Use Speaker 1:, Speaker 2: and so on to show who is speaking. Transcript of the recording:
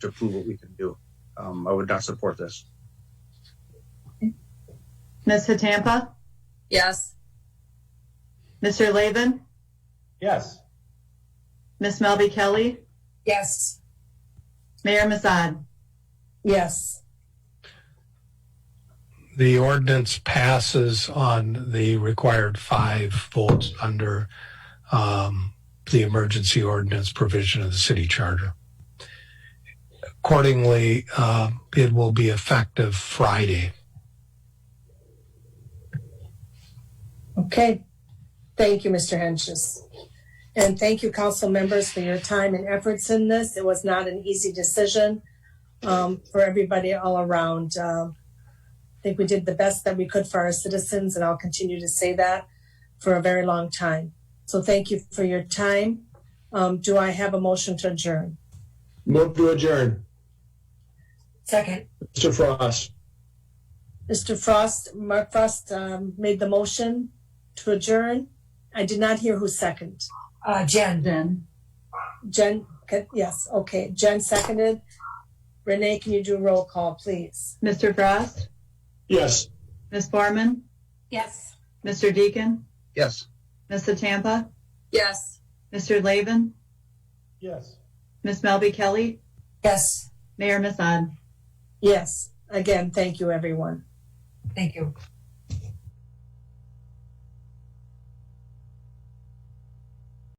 Speaker 1: to prove what we can do. Um, I would not support this.
Speaker 2: Ms. Hatampa?
Speaker 3: Yes.
Speaker 2: Mr. Laban?
Speaker 4: Yes.
Speaker 2: Ms. Melby Kelly?
Speaker 3: Yes.
Speaker 2: Mayor Massad?
Speaker 3: Yes.
Speaker 5: The ordinance passes on the required five votes under um, the emergency ordinance provision of the city charter. Accordingly, uh, it will be effective Friday.
Speaker 3: Okay. Thank you, Mr. Henches. And thank you, council members, for your time and efforts in this. It was not an easy decision um, for everybody all around. Um, I think we did the best that we could for our citizens, and I'll continue to say that for a very long time. So thank you for your time. Um, do I have a motion to adjourn?
Speaker 4: Move to adjourn.
Speaker 3: Second.
Speaker 4: Mr. Frost.
Speaker 3: Mr. Frost, Mark Frost um, made the motion to adjourn. I did not hear who seconded.
Speaker 6: Uh, Jen,
Speaker 2: Then.
Speaker 3: Jen, okay, yes, okay. Jen seconded. Renee, can you do a roll call, please?
Speaker 2: Mr. Frost?
Speaker 4: Yes.
Speaker 2: Ms. Foreman?
Speaker 6: yes.
Speaker 2: Mr. Deacon?
Speaker 1: Yes.
Speaker 2: Ms. Hatampa?
Speaker 6: Yes.
Speaker 2: Mr. Laban?
Speaker 4: Yes.
Speaker 2: Ms. Melby Kelly?
Speaker 6: Yes.
Speaker 2: Mayor Massad?
Speaker 3: Yes, again, thank you, everyone.
Speaker 6: Thank you.